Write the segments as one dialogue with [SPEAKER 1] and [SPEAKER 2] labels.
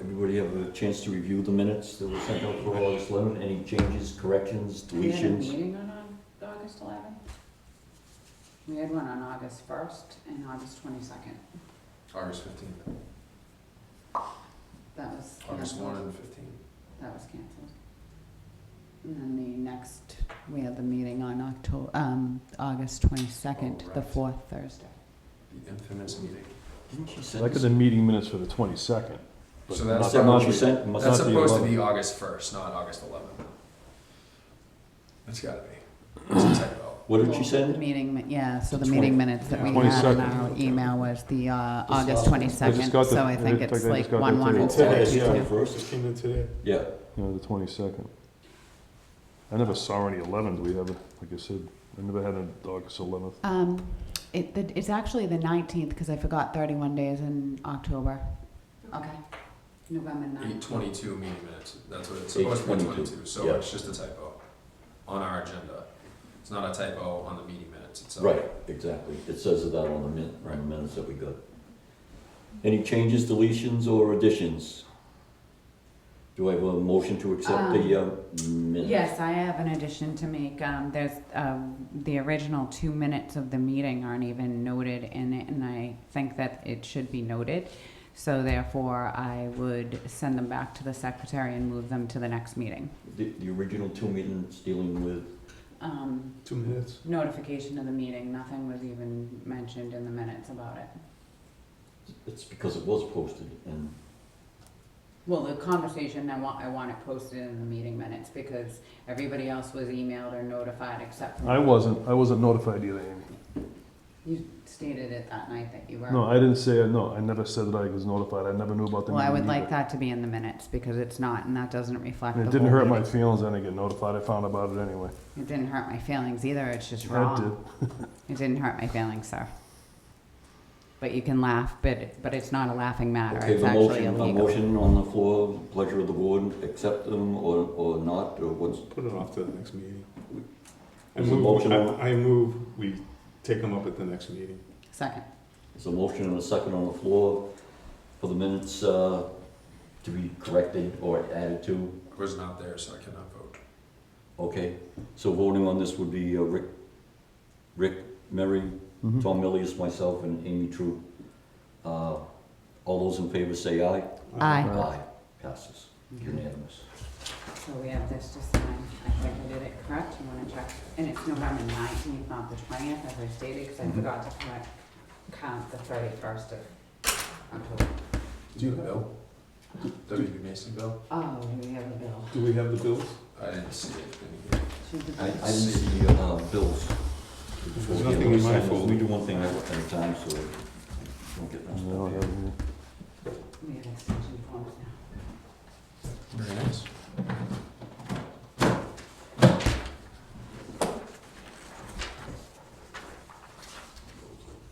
[SPEAKER 1] everybody have a chance to review the minutes that were sent out for August 11? Any changes, corrections,
[SPEAKER 2] We had a
[SPEAKER 1] deletions?
[SPEAKER 2] meeting on Au- August eleventh? We had one on August first and August twenty-second.
[SPEAKER 3] August fifteenth,
[SPEAKER 2] That was
[SPEAKER 3] August one
[SPEAKER 2] canceled.
[SPEAKER 3] and fifteen.
[SPEAKER 2] That was canceled. And then the next, we had the meeting on Octo, um, August twenty-second,
[SPEAKER 3] Oh,
[SPEAKER 2] the
[SPEAKER 3] right.
[SPEAKER 2] fourth Thursday.
[SPEAKER 3] the infamous meeting.
[SPEAKER 1] Didn't she send
[SPEAKER 4] Look at
[SPEAKER 1] us?
[SPEAKER 4] the meeting minutes for the twenty-second.
[SPEAKER 3] So
[SPEAKER 1] Is
[SPEAKER 3] that's
[SPEAKER 1] that what
[SPEAKER 3] not-
[SPEAKER 1] she sent? Must
[SPEAKER 3] That's
[SPEAKER 1] not be
[SPEAKER 3] supposed to
[SPEAKER 1] 11.
[SPEAKER 3] be August first, not August eleventh. It's gotta be. It's a typo.
[SPEAKER 1] What did she
[SPEAKER 2] The
[SPEAKER 1] send?
[SPEAKER 2] meeting, mi- yeah, so the
[SPEAKER 1] Twenty-
[SPEAKER 2] meeting minutes that we had in
[SPEAKER 4] 22nd.
[SPEAKER 2] our email was the, uh, August
[SPEAKER 1] last one. I
[SPEAKER 2] twenty-second,
[SPEAKER 4] got
[SPEAKER 2] so
[SPEAKER 4] the-
[SPEAKER 2] I
[SPEAKER 4] I
[SPEAKER 2] think
[SPEAKER 4] just-
[SPEAKER 2] it's
[SPEAKER 4] I
[SPEAKER 2] like oh
[SPEAKER 4] just got that
[SPEAKER 2] one-one
[SPEAKER 4] today.
[SPEAKER 2] instead of
[SPEAKER 1] Today, yeah.
[SPEAKER 2] two-two.
[SPEAKER 1] First?
[SPEAKER 5] Just came in today.
[SPEAKER 1] Yeah,
[SPEAKER 4] You know, the twenty-second. I never saw any eleventh, we ever, like I said, I never had an August eleventh.
[SPEAKER 2] Um, it, the- it's actually the nineteenth, because I forgot thirty-one days in October. Okay. November
[SPEAKER 3] Eight
[SPEAKER 2] ninth.
[SPEAKER 3] twenty-two meeting minutes, that's what it's supposed to be
[SPEAKER 1] 8:22,
[SPEAKER 3] twenty-two, so
[SPEAKER 1] yeah.
[SPEAKER 3] it's just a typo on our agenda. It's not a typo on the meeting minutes itself.
[SPEAKER 1] right, exactly. It says that on the min, on the minutes that we got. Any changes, deletions, or additions? Do I have a motion to accept the uh, minutes?
[SPEAKER 2] Yes, I have an addition to make. Um, there's, um, the original two minutes of the meeting aren't even noted in it, and I think that it should be noted. So therefore, I would send them back to the secretary and move them to the next meeting.
[SPEAKER 1] The, the original two meetings dealing with,
[SPEAKER 2] Um,
[SPEAKER 5] Two minutes.
[SPEAKER 2] notification of the meeting, nothing was even mentioned in the minutes about it.
[SPEAKER 1] it's because it was posted and
[SPEAKER 2] Well, the conversation, I want, I want it posted in the meeting minutes because everybody else was emailed or notified except for.
[SPEAKER 4] I wasn't, I wasn't notified either, Amy.
[SPEAKER 2] You stated it that night that you were.
[SPEAKER 4] No, I didn't say, no, I never said that I was notified, I never knew about the
[SPEAKER 2] Well, I
[SPEAKER 4] meeting
[SPEAKER 2] would
[SPEAKER 4] either.
[SPEAKER 2] like that to be in the minutes because it's not, and that doesn't reflect the whole.
[SPEAKER 4] And it didn't hurt my
[SPEAKER 2] meeting.
[SPEAKER 4] feelings, I didn't get notified, I found about it anyway.
[SPEAKER 2] It didn't hurt my feelings either, it's just
[SPEAKER 4] I did.
[SPEAKER 2] wrong. It didn't hurt my feelings, sir. But you can laugh, but, but it's not a laughing matter,
[SPEAKER 1] Okay,
[SPEAKER 2] it's
[SPEAKER 1] the
[SPEAKER 2] actually
[SPEAKER 1] motion, a
[SPEAKER 2] illegal.
[SPEAKER 1] motion on the floor, pleasure of the board, accept them or, or not, or what's,
[SPEAKER 5] Put it off to the next meeting. I
[SPEAKER 1] Is it
[SPEAKER 5] move,
[SPEAKER 1] motion
[SPEAKER 5] I-
[SPEAKER 1] on?
[SPEAKER 5] I move, we take them up at the next meeting.
[SPEAKER 2] Second,
[SPEAKER 1] there's a motion and a second on the floor for the minutes, uh, to be corrected or added to,
[SPEAKER 3] I was not there, so I cannot vote.
[SPEAKER 1] okay? So voting on this would be uh, Rick, Rick, Mary,
[SPEAKER 3] Mm-hmm.
[SPEAKER 4] Mhm.
[SPEAKER 1] Tom Millius, myself, and Amy True. Uh, all those in favor say aye.
[SPEAKER 2] aye,
[SPEAKER 4] Aye.
[SPEAKER 1] Passes, unanimous.
[SPEAKER 2] so we have this to sign, I think I did it correct, you wanna check? And it's November nineteenth, not the twentieth, as I stated, cause I
[SPEAKER 1] Mhm.
[SPEAKER 2] forgot to correct, count the thirty-first of October.
[SPEAKER 5] Do you
[SPEAKER 3] The bill? WB Mason bill?
[SPEAKER 2] Oh, we have a bill.
[SPEAKER 5] Do we have the bills?
[SPEAKER 3] I didn't see it. Didn't
[SPEAKER 2] She's
[SPEAKER 1] I, I
[SPEAKER 2] a-
[SPEAKER 1] didn't see the, uh, bills.
[SPEAKER 5] There's nothing in my folder.
[SPEAKER 1] We do one thing at a time, so I don't get messed
[SPEAKER 4] No, I
[SPEAKER 1] up.
[SPEAKER 4] haven't either.
[SPEAKER 2] We have extension forms now.
[SPEAKER 3] you? Very nice.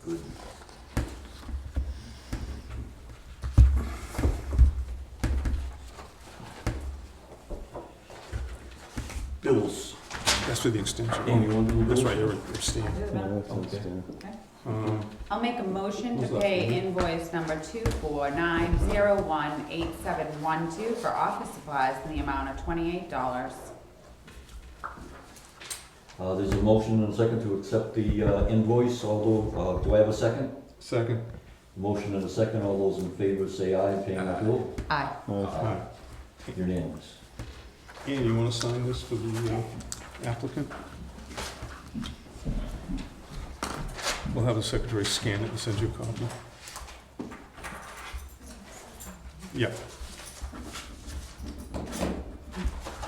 [SPEAKER 1] Good. Bills.
[SPEAKER 5] That's for the extension.
[SPEAKER 1] Amy, Oh, you want to do
[SPEAKER 5] That's
[SPEAKER 1] bills?
[SPEAKER 5] right, you're abstaining.
[SPEAKER 4] Yeah, that's
[SPEAKER 1] Okay.
[SPEAKER 4] understandable.
[SPEAKER 5] Uh,
[SPEAKER 2] I'll make a motion to
[SPEAKER 5] Who's left,
[SPEAKER 2] pay
[SPEAKER 5] Amy?
[SPEAKER 2] invoice number two four nine zero one eight seven one two for office supplies in the amount of twenty-eight dollars.
[SPEAKER 1] Uh, there's a motion and a second to accept the uh, invoice, although, uh, do I have a second?
[SPEAKER 5] Second.
[SPEAKER 1] Motion and a second, all those in favor say aye, paying the bill,
[SPEAKER 2] Aye.
[SPEAKER 4] Aye.
[SPEAKER 5] Aye.
[SPEAKER 1] unanimous.
[SPEAKER 5] Ian, you want to sign this for the uh, applicant? We'll have the secretary scan it and send you a copy. Yeah.
[SPEAKER 6] Can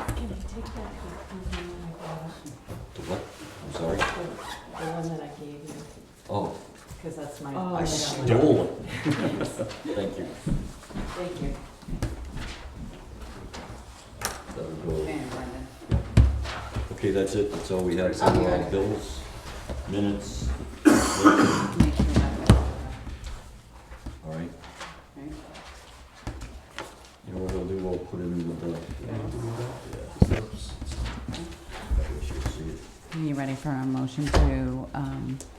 [SPEAKER 6] I take back the, um,
[SPEAKER 1] To what? I'm sorry?
[SPEAKER 6] the one that I gave you,
[SPEAKER 1] Oh,
[SPEAKER 6] because that's my.
[SPEAKER 2] Oh,
[SPEAKER 1] I
[SPEAKER 2] yeah.
[SPEAKER 1] stole it. Thank you.
[SPEAKER 6] Thank you.
[SPEAKER 1] That'll go.
[SPEAKER 2] And Brendan.
[SPEAKER 1] Okay, that's it, that's all we have for
[SPEAKER 2] Okay.
[SPEAKER 1] uh, bills, minutes,
[SPEAKER 2] Make sure that-
[SPEAKER 1] all right.
[SPEAKER 2] Okay.
[SPEAKER 1] You know what I'll do, I'll put it in with the,
[SPEAKER 5] So,
[SPEAKER 1] that way she'll see it.
[SPEAKER 2] Are you ready for a motion to, um, oh,